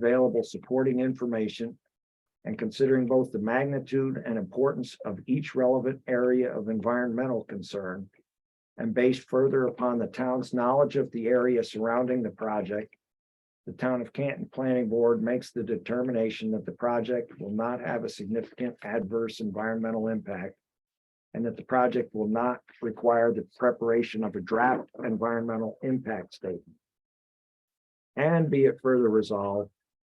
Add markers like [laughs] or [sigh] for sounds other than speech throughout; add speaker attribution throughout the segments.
Speaker 1: available supporting information and considering both the magnitude and importance of each relevant area of environmental concern and based further upon the town's knowledge of the area surrounding the project, the Town of Canton Planning Board makes the determination that the project will not have a significant adverse environmental impact and that the project will not require the preparation of a draft environmental impact statement. And be it further resolved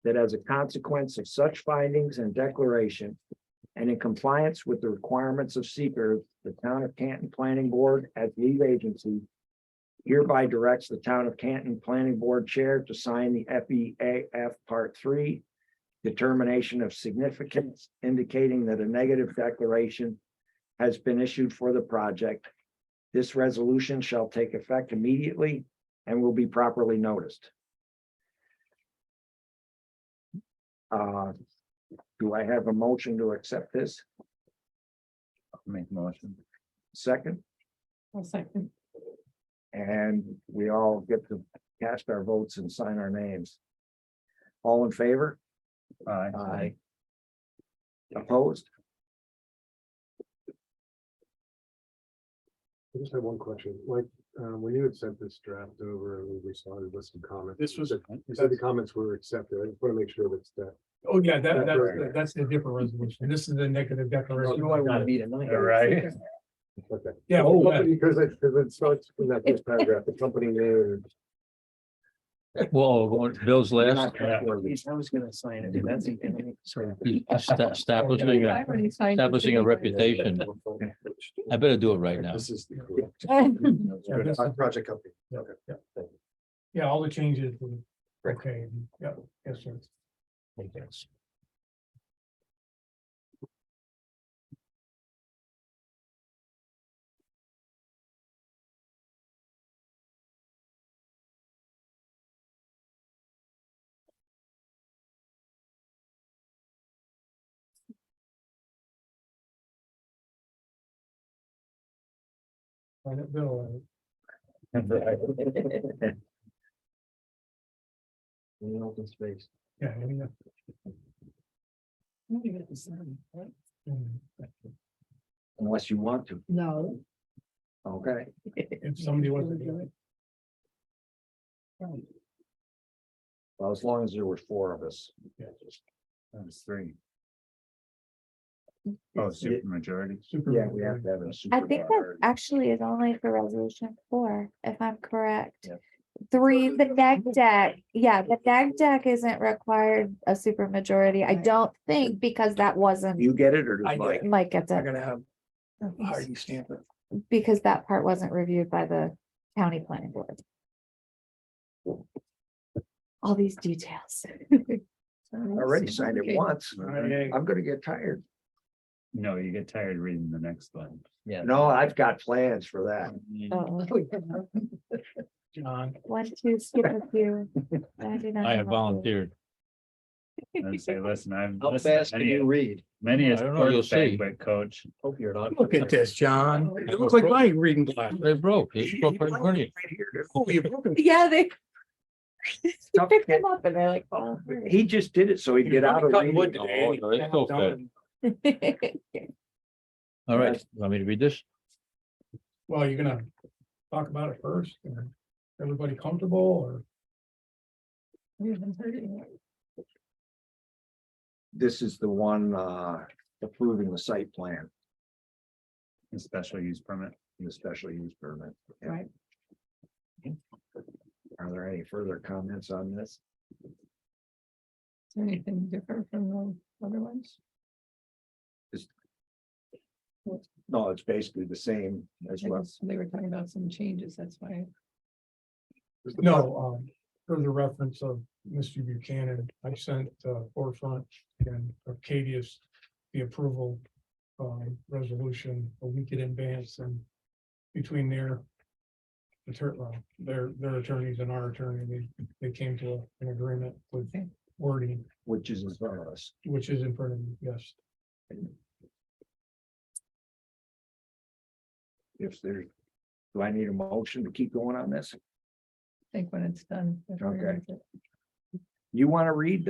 Speaker 1: that as a consequence of such findings and declaration, and in compliance with the requirements of seeker, the Town of Canton Planning Board as lead agency hereby directs the Town of Canton Planning Board Chair to sign the FEAF Part Three determination of significance indicating that a negative declaration has been issued for the project. This resolution shall take effect immediately and will be properly noticed. Uh, do I have a motion to accept this?
Speaker 2: Make motion.
Speaker 1: Second,
Speaker 3: I'll second.
Speaker 1: and we all get to cast our votes and sign our names. All in favor?
Speaker 2: Aye.
Speaker 1: Opposed?
Speaker 4: I just have one question, like, um, when you had sent this draft over and we responded with some comments.
Speaker 5: This
Speaker 4: you
Speaker 5: was,
Speaker 4: said- You said the comments were accepted, I just want to make sure that's that.
Speaker 5: oh yeah, that,
Speaker 4: That's
Speaker 5: that's,
Speaker 4: right.
Speaker 5: that's the different resolution. This is the negative
Speaker 2: Oh,
Speaker 5: declaration.
Speaker 1: You want to be tonight?
Speaker 2: Right.
Speaker 4: Okay.
Speaker 5: Yeah,
Speaker 4: Well,
Speaker 5: oh, yeah.
Speaker 4: Because it, because it starts in that first paragraph, the company name.
Speaker 2: Whoa, going- Bill's
Speaker 1: You're
Speaker 2: last,
Speaker 1: not trustworthy. I was gonna sign it. That's.
Speaker 2: [laughs] Esta- establishing,
Speaker 3: I
Speaker 2: a-
Speaker 3: already signed it.
Speaker 2: establishing a reputation. I better do it right now.
Speaker 4: This is the
Speaker 5: Yeah, this
Speaker 4: Uh,
Speaker 5: is-
Speaker 4: project company.
Speaker 5: Yeah,
Speaker 4: Okay.
Speaker 5: yeah.
Speaker 4: Thank you.
Speaker 5: Yeah, all the changes. were Okay, yeah, yes, sir. Find it, Bill, uh,
Speaker 1: In open space.
Speaker 5: Yeah. I mean, that's- mm,
Speaker 1: Unless you want to,
Speaker 3: No.
Speaker 1: okay,
Speaker 5: If somebody wants to do it.
Speaker 1: well, as long as there were four of us.
Speaker 5: Yeah.
Speaker 2: That's three. Oh, super majority.
Speaker 5: super-
Speaker 1: Yeah, we have to have a super.
Speaker 6: I think that actually is only for resolution four, if I'm correct.
Speaker 1: Yep.
Speaker 6: Three, the neg deck, yeah, the neg deck isn't required a supermajority. I
Speaker 3: Right.
Speaker 6: don't think, because that wasn't,
Speaker 1: You get it or
Speaker 5: I
Speaker 1: does
Speaker 5: get
Speaker 1: Mike?
Speaker 6: Mike gets it,
Speaker 5: gonna have
Speaker 3: Okay.
Speaker 5: stamp it.
Speaker 6: because that part wasn't reviewed by the county planning board. All these details.
Speaker 1: I
Speaker 6: [laughs]
Speaker 1: Already signed it
Speaker 3: Okay.
Speaker 1: once.
Speaker 5: Right.
Speaker 1: I'm gonna get tired.
Speaker 2: No, you get tired reading the next
Speaker 3: [laughs]
Speaker 2: one. Yeah.
Speaker 1: No, I've got plans for that.
Speaker 6: Uh-oh.
Speaker 5: John.
Speaker 6: Oh. One, two, skip a few. I do not
Speaker 7: I have
Speaker 6: a few.
Speaker 7: volunteered.
Speaker 2: And say, listen, I'm.
Speaker 1: How fast can you read?
Speaker 2: Many is
Speaker 7: I don't know, you'll
Speaker 2: first
Speaker 7: see.
Speaker 2: banquet coach.
Speaker 1: Hope you're not.
Speaker 7: Look at this, John.
Speaker 5: It looks like my reading glasses.
Speaker 7: They broke. They broke right in front of you.
Speaker 5: Oh, you're broken.
Speaker 6: Yeah, they. [laughs]
Speaker 1: Tough
Speaker 6: Pick
Speaker 1: kid.
Speaker 6: them up and they're like, oh. [laughs]
Speaker 1: He just did it so he'd get out of
Speaker 5: Cutting
Speaker 1: reading.
Speaker 5: wood
Speaker 7: Oh,
Speaker 5: today.
Speaker 7: no, it's so fat. All right, want me to read this?
Speaker 5: Well, you're gonna talk about it first, or everybody comfortable, or?
Speaker 3: We haven't heard it yet.
Speaker 1: This is the one uh approving the site plan,
Speaker 2: a Special use permit.
Speaker 1: the special use permit.
Speaker 3: Right.
Speaker 1: Are there any further comments on this?
Speaker 3: Is there anything different from the other ones?
Speaker 1: No, it's basically the same as
Speaker 3: I
Speaker 1: well.
Speaker 3: guess They were talking about some changes, that's why.
Speaker 4: Is the
Speaker 5: No, um, for the reference of Mr. Buchanan, I sent uh, forefront and Arcadius the approval um, resolution a week in advance and between their attorney, their, their attorneys and our attorney, they, they came to an agreement with wording,
Speaker 1: Which is as far as.
Speaker 5: which is in front of you, yes.
Speaker 1: If there, do I need a motion to keep going on this?
Speaker 3: I think when it's done. that's where
Speaker 1: Okay.
Speaker 3: it's at.
Speaker 1: You want to read